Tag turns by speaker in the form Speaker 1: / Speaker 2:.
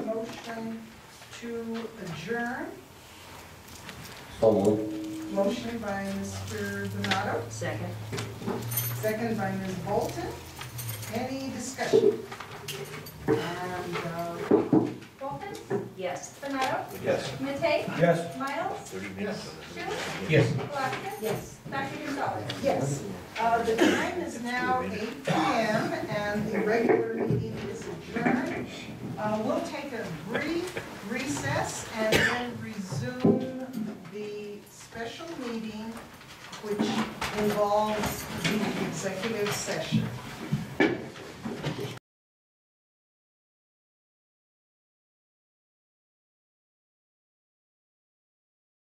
Speaker 1: to adjourn.
Speaker 2: So moved.
Speaker 1: Motion by Mr. Donato,
Speaker 3: Second.
Speaker 1: second by Ms. Bolton. Any discussion? And, uh,
Speaker 4: Bolton?
Speaker 3: Yes.
Speaker 4: Benado?
Speaker 5: Yes.
Speaker 4: Matei?
Speaker 5: Yes.
Speaker 4: Miles?
Speaker 5: Yes.
Speaker 4: Schuler?
Speaker 5: Yes.
Speaker 4: Halakis?
Speaker 3: Yes.
Speaker 4: Dr. Gonzalez?
Speaker 1: Yes, Uh, the time is now eight PM and the regular meeting is adjourned. Uh, We'll take a brief recess and then resume the special meeting, which involves the executive session.